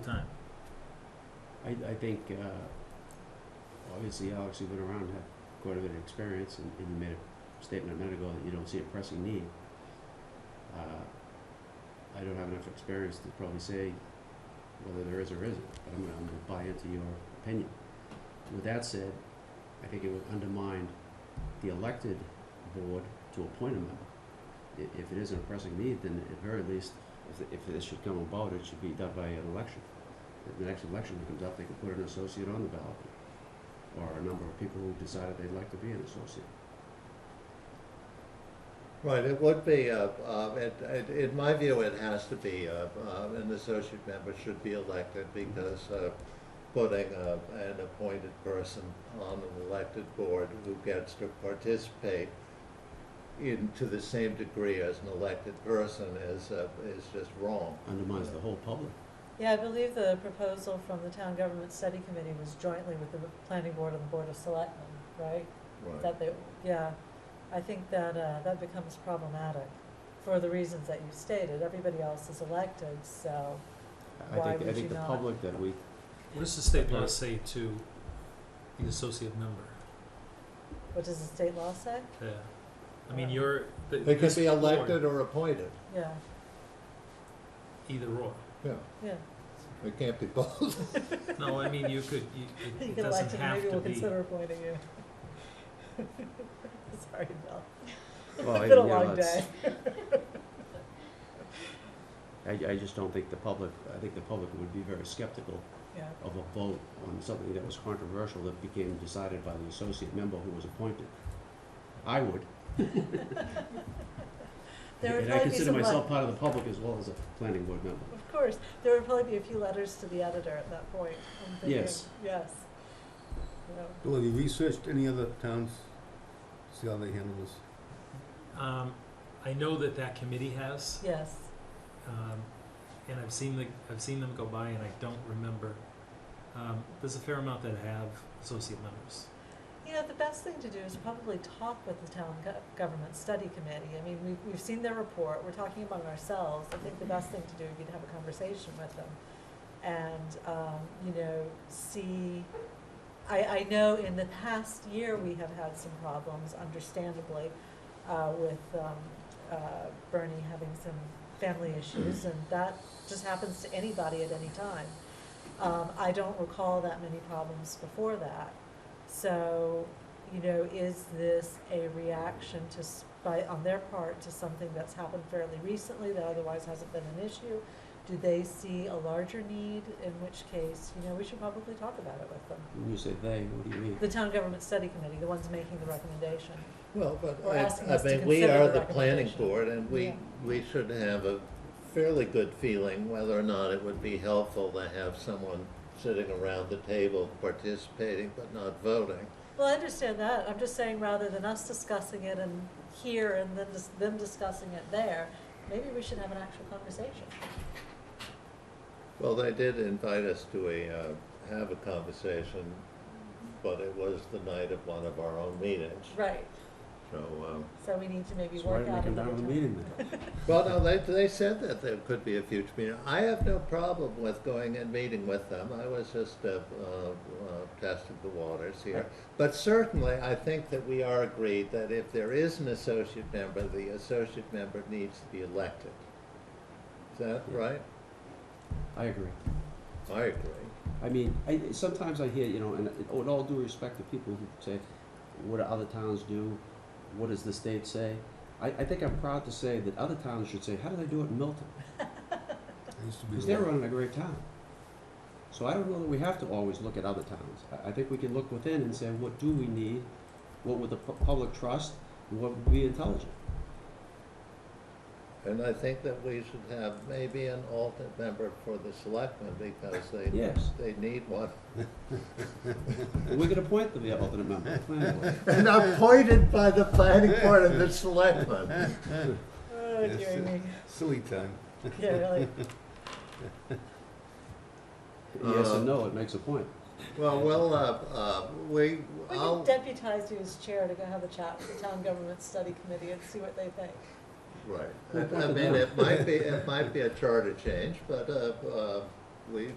time. I, I think, uh, obviously Alex, you've been around, have quite a bit of experience, and, and you made a statement a minute ago that you don't see a pressing need. Uh, I don't have enough experience to probably say whether there is or isn't, but I'm gonna, I'm gonna buy into your opinion. With that said, I think it would undermine the elected board to appoint a member. I- if it isn't a pressing need, then at very least, if, if this should come about, it should be done by an election the next election that comes up, they can put an associate on the ballot, or a number of people who decided they'd like to be an associate. Right, it would be, uh, uh, it, it, in my view, it has to be, uh, uh, an associate member should be elected because, uh, putting, uh, an appointed person on an elected board who gets to participate in, to the same degree as an elected person is, uh, is just wrong. Undermines the whole public. Yeah, I believe the proposal from the Town Government Study Committee was jointly with the Planning Board and the Board of Selectmen, right? Right. That they, yeah, I think that, uh, that becomes problematic for the reasons that you stated. Everybody else is elected, so, I Why think, I would think you the not? public that we, What does the state law say to the associate member? what does the state law say? Yeah. I mean, you're. th- They this can be board, elected or appointed, Yeah, Either or. yeah, yeah. it can't be both. No, I mean, you could, you, it- You it get doesn't elected, have maybe to we'll be. consider appointing you. Sorry, Bill. well, I, It's you been a know, long it's, day. I, I just don't think the public, I think the public would be very skeptical Yeah, of a vote on something that was controversial that became decided by the associate member who was appointed. I would, there would and I probably be consider some like- myself part of the public as well as a planning board member. Of course, there would probably be a few letters to the editor at that point. I'm thinking, Yes. Yes. You know, Well, have you researched any other towns, see how they handle this? Um, I know that that committee has, Yes, um, and I've seen the, I've seen them go by and I don't remember. Um, there's a fair amount that have associate members. you know, the best thing to do is probably talk with the town go- government study committee. I mean, we've, we've seen their report, we're talking among ourselves. I think the best thing to do would be to have a conversation with them. And, um, you know, see, I, I know in the past year, we have had some problems, understandably, uh, with, um, uh, Bernie having some family issues, and that just happens to anybody at any time. Um, I don't recall that many problems before that. So, you know, is this a reaction to, s- by, on their part to something that's happened fairly recently that otherwise hasn't been an issue? Do they see a larger need, in which case, you know, we should probably talk about it with them. When you say they, what do you mean? The town government study committee, the ones making the recommendation. Well, but We're asking I, us I to mean, we consider are the the planning recommendation. board and we, Yeah. we should have a fairly good feeling whether or not it would be helpful to have someone sitting around the table participating but not voting. Well, I understand that. I'm just saying, rather than us discussing it and here and then dis- them discussing it there, maybe we should have an actual conversation. Well, they did invite us to a, uh, have a conversation, but it was the night of one of our own meetings, Right. so, um, So we need to maybe So why work didn't they out come down another to the time. meeting then? Well, no, they, they said that there could be a future meeting. I have no problem with going and meeting with them. I was just uh, uh, uh, testing the waters here. But certainly, I think that we are agreed that if there is an associate member, the associate member needs to be elected. Is that Yeah. right? I agree. I agree. I mean, I, sometimes I hear, you know, and it- with all due respect to people who say, what do other towns do? What does the state say? I, I think I'm proud to say that other towns should say, how do they do it in Milton? It used to be Because the they're law. running a great town. So I don't know that we have to always look at other towns. I, I think we can look within and say, what do we need? What would the pu- public trust? And what would be intelligent? And I think that we should have maybe an alternate member for the selectmen because they, Yes. they need one. And we can appoint the alternate member, the planning board. And appointed by the planning board and the selectmen. Oh, Yes, dear it- me. Silly time. Yeah, really. Yes and no, it makes a point. Well, we'll, uh, uh, we, We I'll, can deputize you as chair to go have a chat with the town government study committee and see what they think. right, I I mean, it might be, it might be a charter change, but, uh, uh, we,